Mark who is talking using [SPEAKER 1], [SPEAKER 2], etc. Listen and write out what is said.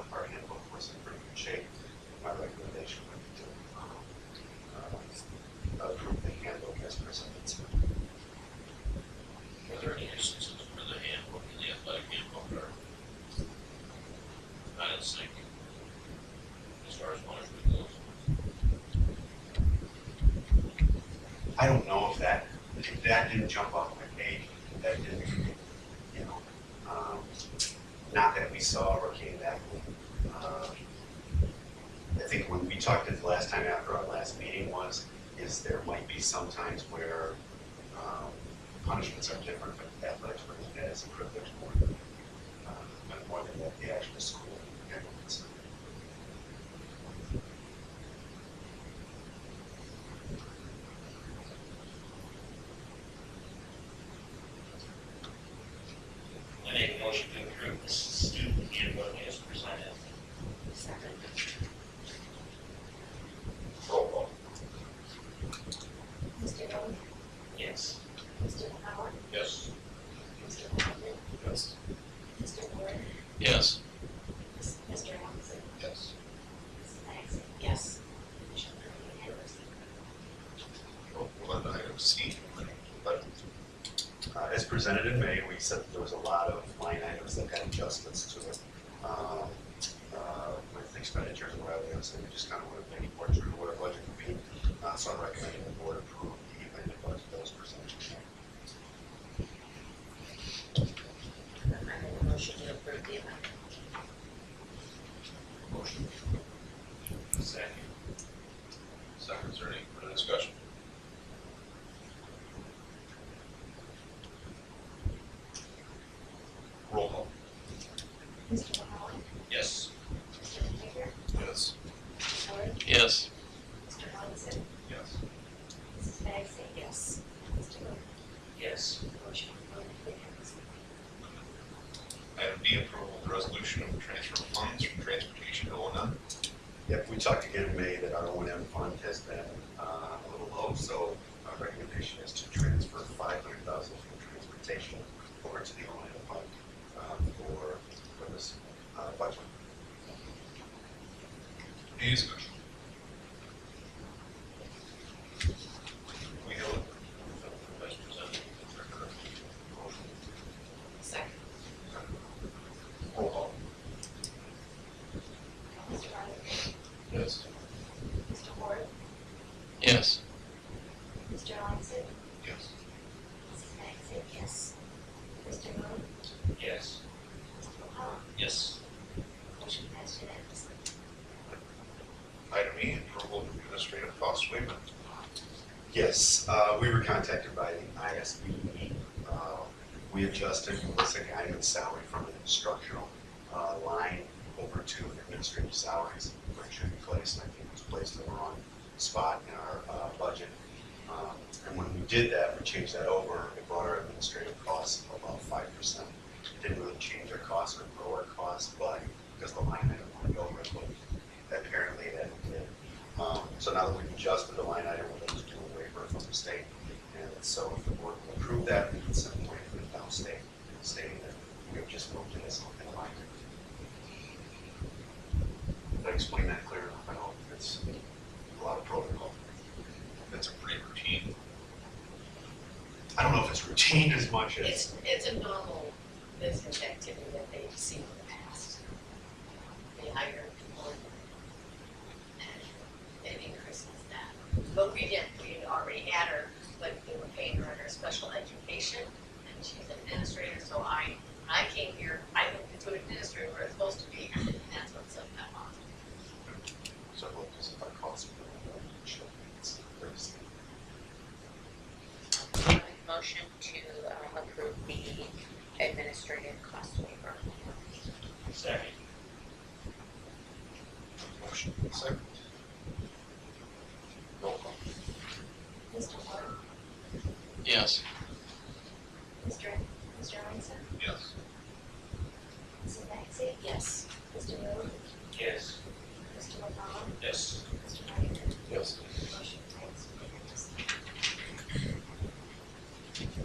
[SPEAKER 1] um, uh, jump off my page that didn't, you know, um, not that we saw or came back with. Uh, I think when we talked it the last time after our last meeting was, is there might be some times where, um, punishments are different, but athletics brings that as a privilege more than, uh, more than what the actual school. implements.
[SPEAKER 2] I make a motion to approve the student handbook as presented.
[SPEAKER 3] Second.
[SPEAKER 2] Roll call.
[SPEAKER 3] Mr. Bowman?
[SPEAKER 2] Yes.
[SPEAKER 3] Mr. Howard?
[SPEAKER 2] Yes.
[SPEAKER 3] Mr. Hoffman?
[SPEAKER 2] Yes.
[SPEAKER 3] Mr. Ward?
[SPEAKER 4] Yes.
[SPEAKER 3] Mr. Robinson?
[SPEAKER 2] Yes.
[SPEAKER 3] Mrs. Maxey? Yes. Motion carried unanimously.
[SPEAKER 5] on item C.
[SPEAKER 1] Uh, as presented in May, we said that there was a lot of line items that had adjustments to it. Um, uh, With expenditures and revenues, and we just kind of wanted to make more true to what our budget would be. Uh, So I'm recommending the board approve the amended budget that was presented.
[SPEAKER 3] I make a motion to approve the amendment.
[SPEAKER 5] Motion.
[SPEAKER 2] Second.
[SPEAKER 5] Second, is there any further discussion? Roll call.
[SPEAKER 3] Mr. Howard?
[SPEAKER 2] Yes.
[SPEAKER 3] Mr. Hager?
[SPEAKER 5] Yes.
[SPEAKER 3] Mr. Ward?
[SPEAKER 4] Yes.
[SPEAKER 3] Mr. Robinson?
[SPEAKER 5] Yes.
[SPEAKER 3] Mrs. Maxey? Yes. Mr. Bowman?
[SPEAKER 2] Yes.
[SPEAKER 3] Motion carried unanimously.
[SPEAKER 5] Item D, approval of the resolution of transfer of funds from transportation to O and M.
[SPEAKER 1] Yep, we talked again in May that our O and M fund has been uh, a little low, so our recommendation is to transfer five hundred thousand from transportation over to the O and M fund uh, for, for this uh, budget.
[SPEAKER 5] Any discussion? We have a
[SPEAKER 2] As presented.
[SPEAKER 5] motion.
[SPEAKER 3] Second.
[SPEAKER 5] Roll call.
[SPEAKER 3] Mr. Robinson?
[SPEAKER 5] Yes.
[SPEAKER 3] Mr. Ward?
[SPEAKER 4] Yes.
[SPEAKER 3] Mr. Robinson?
[SPEAKER 5] Yes.
[SPEAKER 3] Mrs. Maxey? Yes. Mr. Bowman?
[SPEAKER 2] Yes.
[SPEAKER 3] Mr. Howard?
[SPEAKER 2] Yes.
[SPEAKER 3] Motion passed unanimously.
[SPEAKER 5] Item E, approval of administrative cost waiver.
[SPEAKER 1] Yes, uh, we were contacted by the ISB. Uh, We adjusted Melissa Guyman's salary from an instructional uh, line over to administrative salaries, which should be placed, and I think it was placed in the wrong spot in our uh, budget. Um, And when we did that, we changed that over, it brought our administrative costs about five percent. Didn't really change our costs or grow our costs, but because the line item went over, it looked- apparently that did. Um, So now that we've adjusted the line item, we'll just do a waiver from the state. And so if the board will approve that, we can send a waiver to downstate stating that we have just moved in this in line. Did I explain that clear enough? I hope it's a lot of protocol.
[SPEAKER 5] That's a pretty routine.
[SPEAKER 1] I don't know if it's routine as much as,
[SPEAKER 6] It's, it's a normal business activity that they've seen in the past. They hire people and it increases that. But we didn't, we already had her, but we were paying her under special education and she's an administrator, so I, when I came here, I moved into an administrator where it's supposed to be, and that's what's up that long.
[SPEAKER 1] so it looks as if our costs are going up. Sure, it's crazy.
[SPEAKER 6] Motion to um, approve the administrative cost waiver.
[SPEAKER 2] Second.
[SPEAKER 5] Motion. Second. Roll call.
[SPEAKER 3] Mr. Ward?
[SPEAKER 4] Yes.
[SPEAKER 3] Mr. Mr. Robinson?
[SPEAKER 5] Yes.
[SPEAKER 3] Mrs. Maxey? Yes. Mr. Bowman?
[SPEAKER 2] Yes.
[SPEAKER 3] Mr. McCollum?
[SPEAKER 2] Yes.
[SPEAKER 3] Mr. Hager?
[SPEAKER 5] Yes.
[SPEAKER 3] Motion